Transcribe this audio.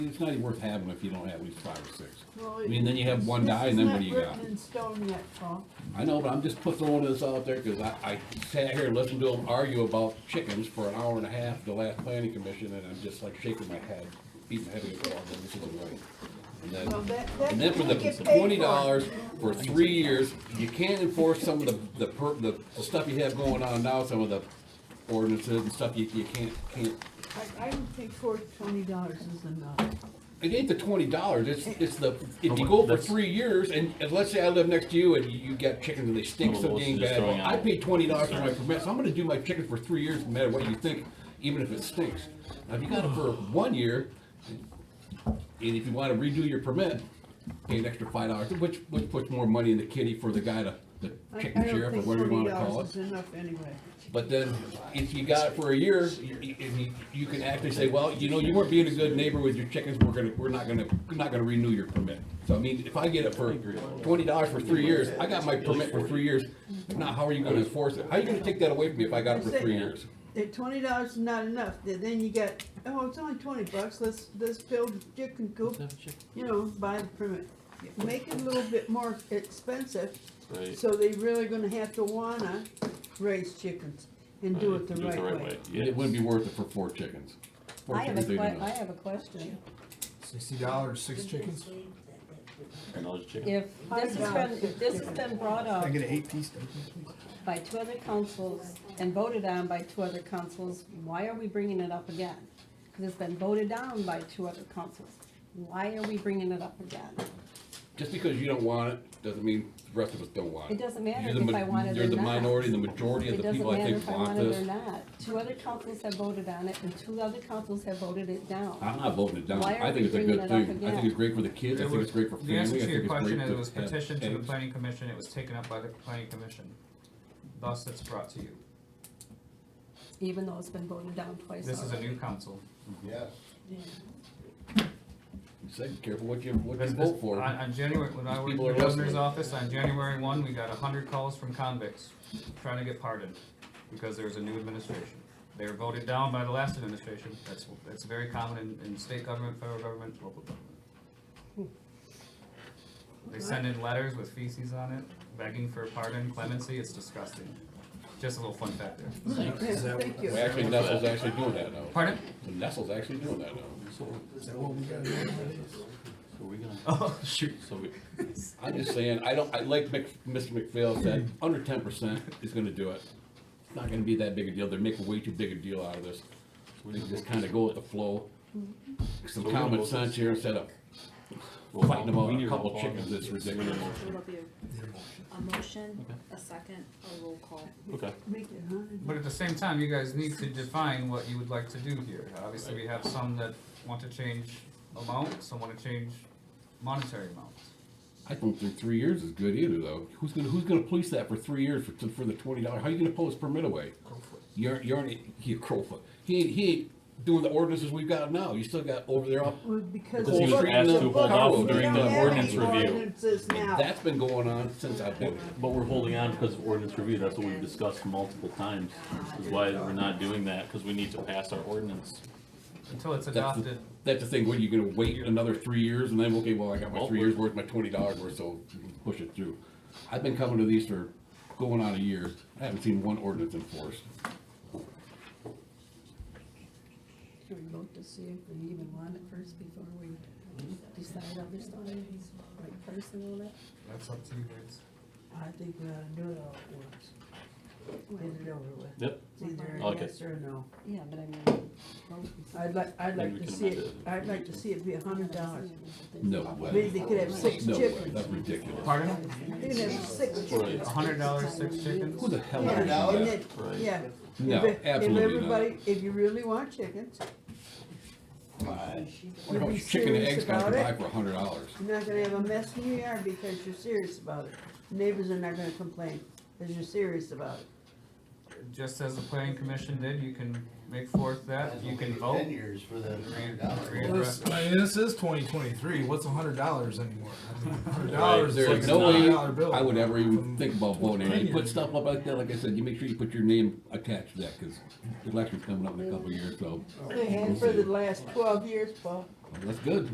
It's not even worth having if you don't have at least five or six. Well, I mean, then you have one this die is and then not what do you got? written in stone yet, Paul. I know, but I'm just put- throwing this out there, cause I, I sat here and listened to them argue about chickens for an hour and a half, the last planning commission, and I'm just like shaking my head, beating my head against the wall, going, this isn't right. And then- Well, that, that And then for you the get paid for. twenty dollars for three years, you can't enforce some of the, the per, the stuff you have going on now, some of the ordinances and stuff you, you can't, can't. I, I don't think for twenty dollars is enough. It ain't the twenty dollars, it's, it's the, if you go for That's- three years, and, and let's say I live next to you and you got chickens and they stink Well, so let's dang just bad, throw well, I out- paid twenty dollars for my permit, so I'm gonna do my chickens for three years, no matter what you think, even if it stinks. Now, if you got it for one year, and if you wanna redo your permit, pay an extra five dollars, which, which puts more money in the kitty for the guy to, the I- chicken sheriff or whatever you wanna I call don't it. think twenty dollars is enough anyway. But then, if you got it for a year, you, you, you can actually say, well, you know, you weren't being a good neighbor with your chickens, we're gonna, we're not gonna, we're not gonna renew your permit. So I mean, if I get it for twenty dollars for three years, I got my permit for three years, now how are you gonna enforce it? How are you gonna take that away from me if I got it for three years? If twenty dollars is not enough, then, then you get, oh, it's only twenty bucks, let's, let's build a chicken coop, you know, buy the permit. Make it a little bit more expensive, Right. so they really gonna have to wanna raise chickens and do it the right way. And It Yeah. wouldn't be worth it for four chickens. Four I have a chickens, que- ain't I enough. have a question. Sixty dollars, six chickens? And all the chicken. If this has been, if this has been brought up I get an eight piece. by two other councils and voted on by two other councils, why are we bringing it up again? Because it's been voted down by two other councils. Why are we bringing it up again? Just because you don't want it, doesn't mean the rest of us don't want it. It doesn't matter You're the if ma- I want it or You're the not. minority, the majority of It the doesn't people I matter think if I want want it or this. not. Two other councils have voted on it and two other councils have voted it down. I'm not voting it down. Why are I think we it's a bringing good it up thing. I think again? it's great for the kids. I It think was- it's great for The family. I answer think to your it's great question is to it was have petitioned to the eggs. planning commission, it was taken up by the planning commission. Thus, it's brought to you. Even though it's been voted down twice This is a already. new council. Say, careful what you, what This- you this- vote for. On, on January, when I These worked in people the are listening. governor's office, on January one, we got a hundred calls from convicts trying to get pardoned because there was a new administration. They were voted down by the last administration. That's, that's very common in, in state government, federal government, local government. They send in letters with feces on it, begging for pardon, clemency. It's disgusting. Just a little fun fact there. Yeah, Thank you. Well, Actually, Nestle's actually doing that now. Pardon? Nestle's actually doing that now. Is that what we got? So we gonna, Oh, shoot. so we, I'm just saying, I don't, I like Mc, Mr. McPhail said, under ten percent is gonna do it. It's not gonna be that big a deal. They're making way too big a deal out of this. We can just kinda go with the flow. Some We're gonna common vote this. sense here instead of we'll fighting we about need a to couple vote on chickens. this. It's ridiculous. It'll be a motion, a second, a roll call. Okay, Make it a hundred. But at the same time, you guys need to define what you would like to do here. Obviously, we have some that want to change amount, some want to change monetary amount. I don't think three years is good either, though. Who's gonna Who's gonna police that for three years for for the twenty dollars? How you gonna pull his permit away? You're you're an- he a crowfoot. He ain't, he ain't doing the ordinances we've got now. You still got over there. Off. Well, because. Because he it's was written asked in to the hold book. off We during don't the have any ordinance review. ordinances now. That's been going on since I've been. here. but we're holding on because of ordinance review, that's what we've discussed multiple times. Is why we're not doing that, because we need to pass our ordinance. Until it's That's the, adopted, that's the thing. What are you gonna wait another three years and then okay? Well, I got my Well, three we're- years worth, my twenty dollars worth, so push it through. I've been coming to these for going on a year. I haven't seen one ordinance enforced. Should we vote to see if we even want it first before we decide other stuff, like person and all that? that's up to you guys. I think we ought to do it all at once. Get it over with. Yep, It's either a Okay. yes or a no. Yeah, but I mean. I'd like, I'd Maybe like we to can see it, amend it. I'd like to see it be a hundred dollars. No Maybe way. they could have six No way. chickens. That's ridiculous. Pardon? You can have six right, A hundred dollars, six chickens? Who the hell Yeah, would do and that? it- right. Yeah. No, If- If absolutely not. everybody, if you really want chickens, How be much chicken and serious eggs got to about buy it. for a hundred dollars? you're not gonna have a mess in your yard because you're serious about it. Neighbors are not gonna complain because you're serious about it. Just as the planning commission did, you can make forth that, you can vote. Ten years for that hundred Grand- dollars. I mean, this is twenty twenty-three, what's a hundred dollars anymore? I mean, a Hundred dollars is like There's a no way dollar bill. I would ever even think about voting. And you Opinion. put stuff up like that, like I said, you make sure you put your name attached to that, cause the election's coming up in a couple of years, so. They had for the last twelve years, Paul. That's good.